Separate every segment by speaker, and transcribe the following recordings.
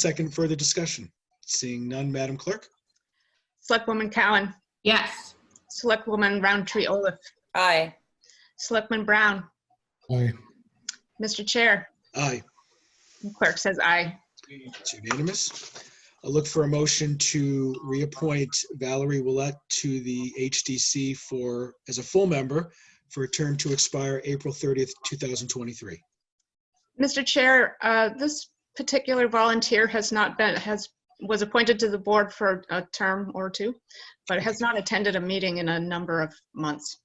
Speaker 1: Second, further discussion? Seeing none, Madam Clerk?
Speaker 2: Selectwoman Cowan,
Speaker 3: Yes.
Speaker 2: Selectwoman Roundtree Olaf,
Speaker 4: Aye.
Speaker 2: Selectman Brown,
Speaker 5: Aye.
Speaker 2: Mr. Chair,
Speaker 1: Aye,
Speaker 2: and clerk says aye.
Speaker 1: it's unanimous. I'll look for a motion to reappoint Valerie Willett to the HDC for, as a full member, for a term to expire April 30th, 2023.
Speaker 2: Mr. Chair, uh, this particular volunteer has not been, has, was appointed to the board for a term or two, but has not attended a meeting in a number of months.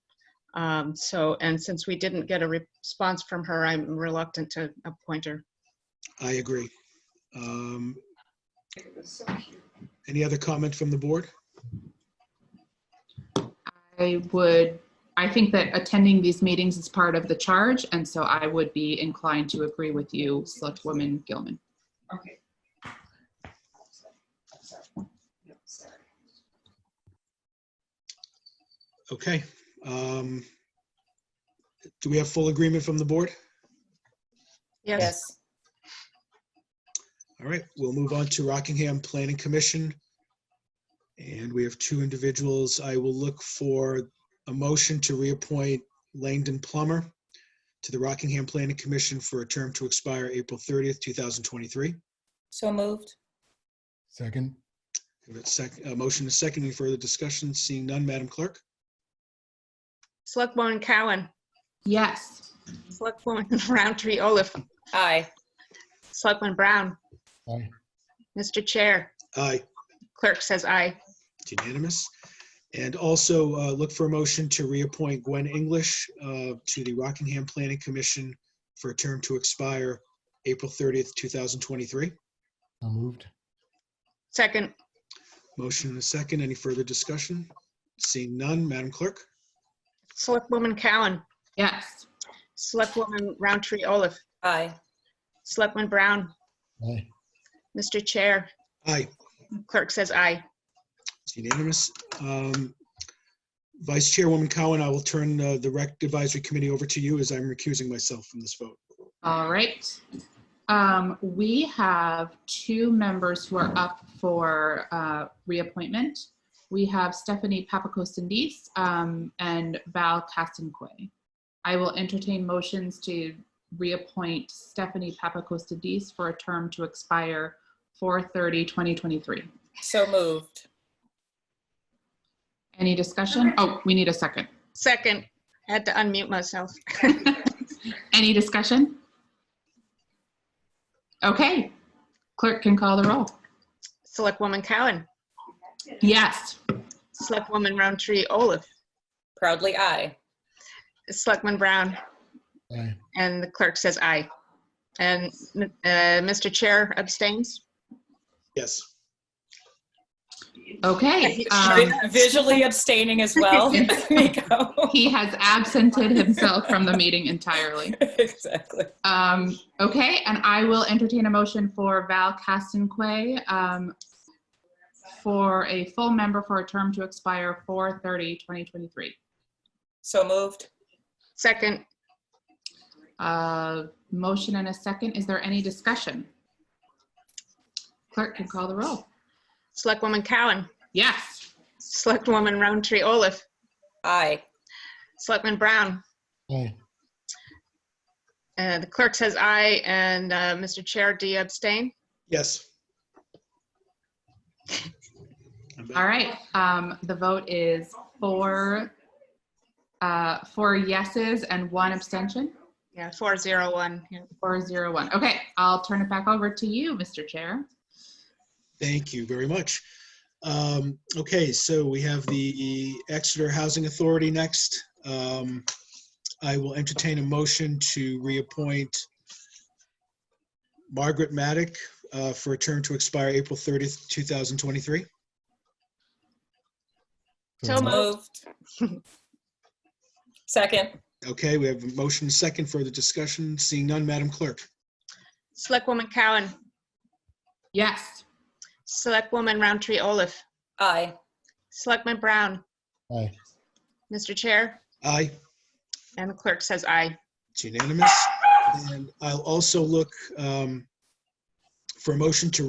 Speaker 2: Um, So, and since we didn't get a response from her, I'm reluctant to appoint her.
Speaker 1: I agree. Um, Any other comment from the board?
Speaker 3: I would, I think that attending these meetings is part of the charge, and so I would be inclined to agree with you, Selectwoman Gilman.
Speaker 1: Okay. um, Do we have full agreement from the board?
Speaker 2: Yes,
Speaker 4: Yes.
Speaker 1: All right, we'll move on to Rockingham Planning Commission. And we have two individuals. I will look for a motion to reappoint Langdon Plummer to the Rockingham Planning Commission for a term to expire April 30th, 2023.
Speaker 4: So moved.
Speaker 5: Second.
Speaker 1: Give it sec- A motion is second. Any further discussion? Seeing none, Madam Clerk?
Speaker 2: Selectwoman Cowan,
Speaker 3: Yes.
Speaker 2: Selectwoman Roundtree Olaf,
Speaker 4: Aye.
Speaker 2: Selectman Brown,
Speaker 5: Aye.
Speaker 2: Mr. Chair,
Speaker 1: Aye.
Speaker 2: clerk says aye.
Speaker 1: It's Unanimous. And also uh, look for a motion to reappoint Gwen English uh, to the Rockingham Planning Commission for a term to expire April 30th, 2023.
Speaker 5: So moved.
Speaker 2: Second,
Speaker 1: Motion and a second. Any further discussion? Seeing none, Madam Clerk?
Speaker 2: Selectwoman Cowan,
Speaker 3: Yes.
Speaker 2: Selectwoman Roundtree Olaf,
Speaker 4: Aye.
Speaker 2: Selectman Brown,
Speaker 5: Aye.
Speaker 2: Mr. Chair,
Speaker 1: Aye.
Speaker 2: clerk says aye.
Speaker 1: It's unanimous. Um, Vice Chairwoman Cowan, I will turn uh, the Rec Advisory Committee over to you as I'm recusing myself from this vote.
Speaker 3: All right. Um, we have two members who are up for, uh, reappointment. We have Stephanie Papakosendis, um, and Val Castanquay. I will entertain motions to reappoint Stephanie Papakosendis for a term to expire 4/30, 2023.
Speaker 4: So moved.
Speaker 3: Any discussion? Oh, we need a second.
Speaker 2: Second, had to unmute myself.
Speaker 3: Any discussion? Okay, clerk can call the roll.
Speaker 2: Selectwoman Cowan,
Speaker 3: Yes.
Speaker 2: Selectwoman Roundtree Olaf,
Speaker 4: Proudly aye.
Speaker 2: Selectman Brown,
Speaker 5: Aye.
Speaker 2: and the clerk says aye. And uh, Mr. Chair abstains.
Speaker 1: Yes.
Speaker 3: Okay. um,
Speaker 4: Vi- Visually abstaining as well. Miko.
Speaker 3: He has absented himself from the meeting entirely.
Speaker 4: Exactly.
Speaker 3: Um, Okay, and I will entertain a motion for Val Castanquay um, for a full member for a term to expire 4/30/2023.
Speaker 4: So moved.
Speaker 2: Second,
Speaker 3: Uh, Motion and a second. Is there any discussion? Clerk can call the roll.
Speaker 2: Selectwoman Cowan,
Speaker 3: Yes.
Speaker 2: Selectwoman Roundtree Olaf,
Speaker 4: Aye.
Speaker 2: Selectman Brown,
Speaker 5: Aye.
Speaker 2: uh, the clerk says aye, and uh, Mr. Chair, do you abstain?
Speaker 1: Yes.
Speaker 3: All right. Um, the vote is four, uh, four yeses and one abstention,
Speaker 2: Yeah, 401. yeah.
Speaker 3: four zero one. Okay, I'll turn it back over to you, Mr. Chair.
Speaker 1: Thank you very much. Um, Okay, so we have the Exeter Housing Authority next. Um, I will entertain a motion to reappoint Margaret Maddock uh, for a term to expire April 30th, 2023.
Speaker 2: So moved.
Speaker 4: Moved. Second.
Speaker 1: Okay, we have a motion second for the discussion. Seeing none, Madam Clerk.
Speaker 2: Selectwoman Cowan,
Speaker 3: Yes.
Speaker 2: Selectwoman Roundtree Olaf,
Speaker 4: Aye.
Speaker 2: Selectman Brown,
Speaker 5: Aye.
Speaker 2: Mr. Chair,
Speaker 1: Aye.
Speaker 2: and the clerk says aye.
Speaker 1: It's unanimous. And I'll also look um, for a motion to